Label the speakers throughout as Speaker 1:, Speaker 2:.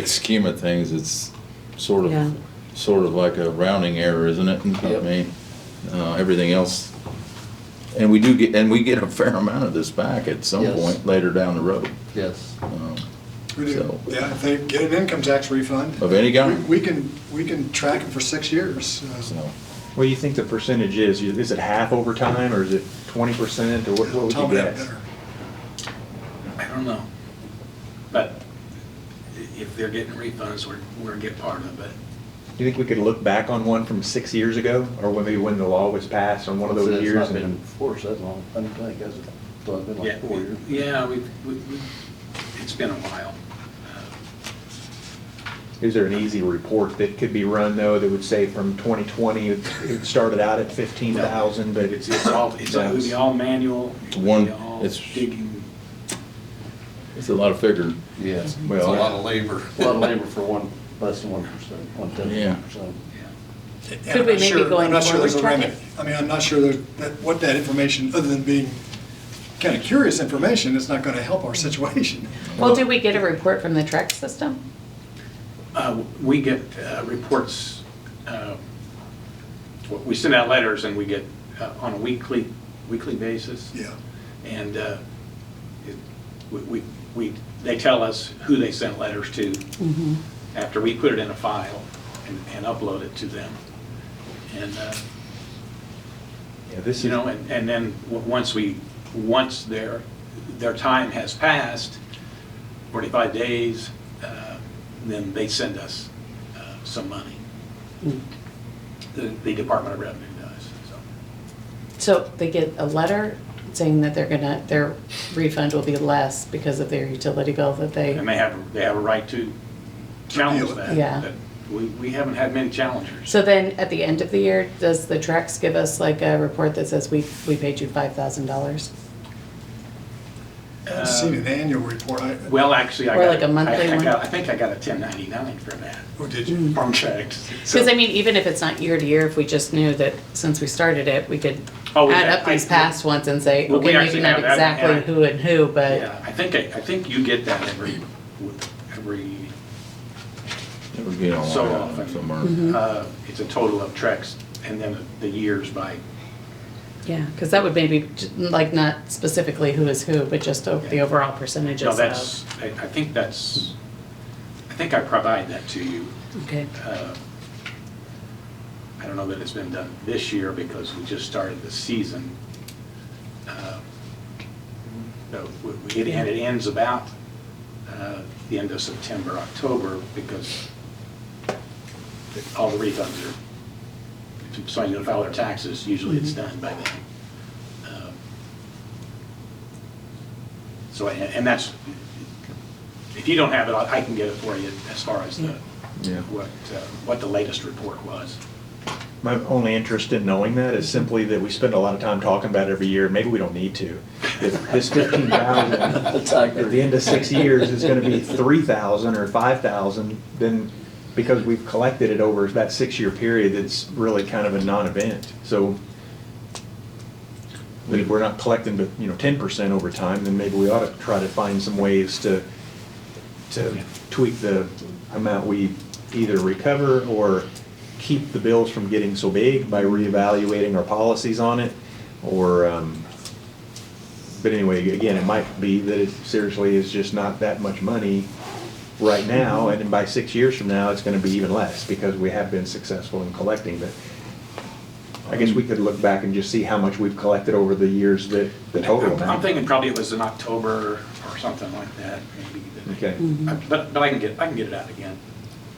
Speaker 1: big scheme of things, it's sort
Speaker 2: Yeah.
Speaker 1: of, sort of like a rounding error, isn't it? I
Speaker 3: Yep.
Speaker 1: mean, uh, everything else, and we do get, and we get a fair amount of this back at some
Speaker 3: Yes.
Speaker 1: point later down the road.
Speaker 3: Yes.
Speaker 1: um,
Speaker 4: We do,
Speaker 1: So-
Speaker 4: yeah, if they get an income tax refund.
Speaker 1: Of any kind.
Speaker 4: we- We can, we can track it for six years. uh,
Speaker 1: So,
Speaker 5: What do you think the percentage is? You- Is it half overtime or is it twenty percent or what, what would
Speaker 4: Tom
Speaker 5: you
Speaker 4: would have
Speaker 5: guess?
Speaker 4: better.
Speaker 6: I don't know. But if they're getting refunds, we're, we're get part of it.
Speaker 5: Do you think we could look back on one from six years ago or when- maybe when the law was passed on one of
Speaker 3: Like I said,
Speaker 5: those years?
Speaker 3: It's not been
Speaker 5: and-
Speaker 3: enforced that long. I don't think, has it? It's only been
Speaker 6: Yeah,
Speaker 3: like four years.
Speaker 6: Yeah, we, we, we- it's been a while. Uh,
Speaker 5: Is there an easy report that could be run though that would say from twenty twenty, it started out at fifteen thousand, but
Speaker 6: It's, it's all, it's, it would be all manual. it
Speaker 1: It's
Speaker 6: would
Speaker 1: one-
Speaker 6: be all
Speaker 1: it's-
Speaker 6: Digging.
Speaker 1: It's a lot of figuring.
Speaker 3: Yes.
Speaker 1: Well, It's a lot
Speaker 3: of labor. A lot of labor for one, less than one percent, one
Speaker 1: Yeah.
Speaker 3: tenth percent.
Speaker 6: yeah.
Speaker 4: And
Speaker 2: Could
Speaker 4: I'm
Speaker 2: we
Speaker 4: not
Speaker 2: maybe
Speaker 4: sure-
Speaker 2: go
Speaker 4: I'm not
Speaker 2: into
Speaker 4: sure there's a
Speaker 2: forward
Speaker 4: remedy. I mean, I'm not sure there- that, what that information, other than being kind of curious information, it's not going to help our situation.
Speaker 2: Well, did we get a report from the track system?
Speaker 6: Uh, We get uh, reports, uh, w- we send out letters and we get uh, on a weekly, weekly basis.
Speaker 4: Yeah.
Speaker 6: And uh, it- we- we, we, they tell us who they sent letters to after we put it in a file and- and upload it to them. And, uh,
Speaker 5: Yeah, this
Speaker 6: you
Speaker 5: is,
Speaker 6: know, and and then, w- once we, once their, their time has passed, 45 days, uh, then they send us uh, some money.
Speaker 5: Hmm.
Speaker 6: The the Department of Revenue does, so.
Speaker 2: So they get a letter saying that they're gonna, their refund will be less because of their utility bill that they,
Speaker 6: And they have, they have a right to challenge that.
Speaker 2: Yeah.
Speaker 6: but We, we haven't had many challengers.
Speaker 2: so then at the end of the year, does the Trex give us like a report that says we, we paid you five thousand dollars?
Speaker 4: I've seen
Speaker 2: Um,
Speaker 4: an annual report. I,
Speaker 6: Well, actually, I got.
Speaker 2: Or like a monthly
Speaker 6: I- I
Speaker 2: one? Hmm.
Speaker 6: got- I think I got a 1099 for that
Speaker 4: oh, did you?
Speaker 6: contract. so-
Speaker 2: Because I mean, even if it's not year to year, if we just knew that since we started it, we could
Speaker 6: Oh, we
Speaker 2: add
Speaker 6: have-
Speaker 2: up these
Speaker 6: I-
Speaker 2: past ones and say,
Speaker 6: Well, we
Speaker 2: okay, maybe
Speaker 6: actually
Speaker 2: not
Speaker 6: have that, and
Speaker 2: exactly
Speaker 6: I-
Speaker 2: who and who, but
Speaker 6: Yeah, I think, I I think you get that every, every
Speaker 1: it would be all
Speaker 6: So
Speaker 1: around
Speaker 6: often.
Speaker 2: Hmm.
Speaker 1: somewhere.
Speaker 6: Uh, It's a total of treks and then the years by,
Speaker 2: yeah, because that would maybe j- like not specifically who is who, but just o- the
Speaker 6: Yeah.
Speaker 2: overall percentages
Speaker 6: no,
Speaker 2: of-
Speaker 6: that's, I I think that's, I think I provide that to you.
Speaker 2: Okay.
Speaker 6: Uh, I don't know that it's been done this year because we just started the season. Uh, so we- we- it- And it ends about uh, the end of September, October, because all the refunds are, so you know, file their taxes, usually it's done by then. Um, So, and and that's, if you don't have it, I I can get it for you as far as the,
Speaker 1: Yeah.
Speaker 6: what, uh, what the latest report was.
Speaker 5: my only interest in knowing that is simply that we spend a lot of time talking about it every year. Maybe we don't need to. If this fifteen thousand at the end of six years is gonna be three thousand or five thousand, then because we've collected it over that six-year period, it's really kind of a non-event. So if we're not collecting, but, you know, ten percent over time, then maybe we ought to try to find some ways to, to tweak the amount we either recover or keep the bills from getting so big by reevaluating our policies on it, or, um, but anyway, again, it might be that it seriously is just not that much money right now, and then by six years from now, it's gonna be even less, because we have been successful in collecting, but I guess we could look back and just see how much we've collected over the years that, the total
Speaker 6: I'm- I'm
Speaker 5: amount.
Speaker 6: thinking probably it was in October or something like that, maybe. that-
Speaker 5: Okay.
Speaker 6: But, but I can get, I can get it out again.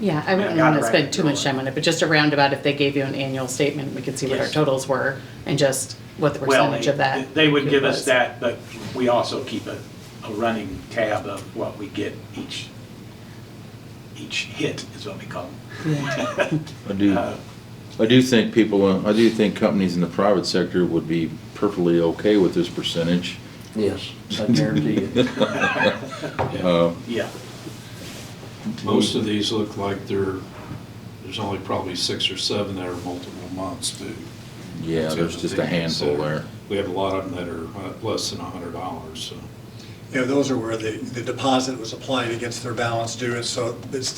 Speaker 2: Yeah, I wouldn't
Speaker 6: Yeah,
Speaker 2: want to
Speaker 6: got it
Speaker 2: spend
Speaker 6: right.
Speaker 2: too much time on it, but just a roundabout, if they gave you an annual statement, we could see what our
Speaker 6: Yes.
Speaker 2: totals were and just what the
Speaker 6: Well,
Speaker 2: percentage of that.
Speaker 6: They would give us
Speaker 2: was.
Speaker 6: that, but we also keep a, a running tab of what we get each, each hit is what we call them.
Speaker 1: I do,
Speaker 6: Uh,
Speaker 1: I do think people, uh, I do think companies in the private sector would be perfectly okay with this percentage.
Speaker 3: Yes, I guarantee you.
Speaker 6: Yeah,
Speaker 7: Most of these look like they're, there's only probably six or seven that are multiple months due.
Speaker 1: Yeah, there's just a handful there.
Speaker 7: We have a lot of them that are uh, less than a hundred dollars, so
Speaker 4: you know, those are where the, the deposit was applied against their balance due, and so it's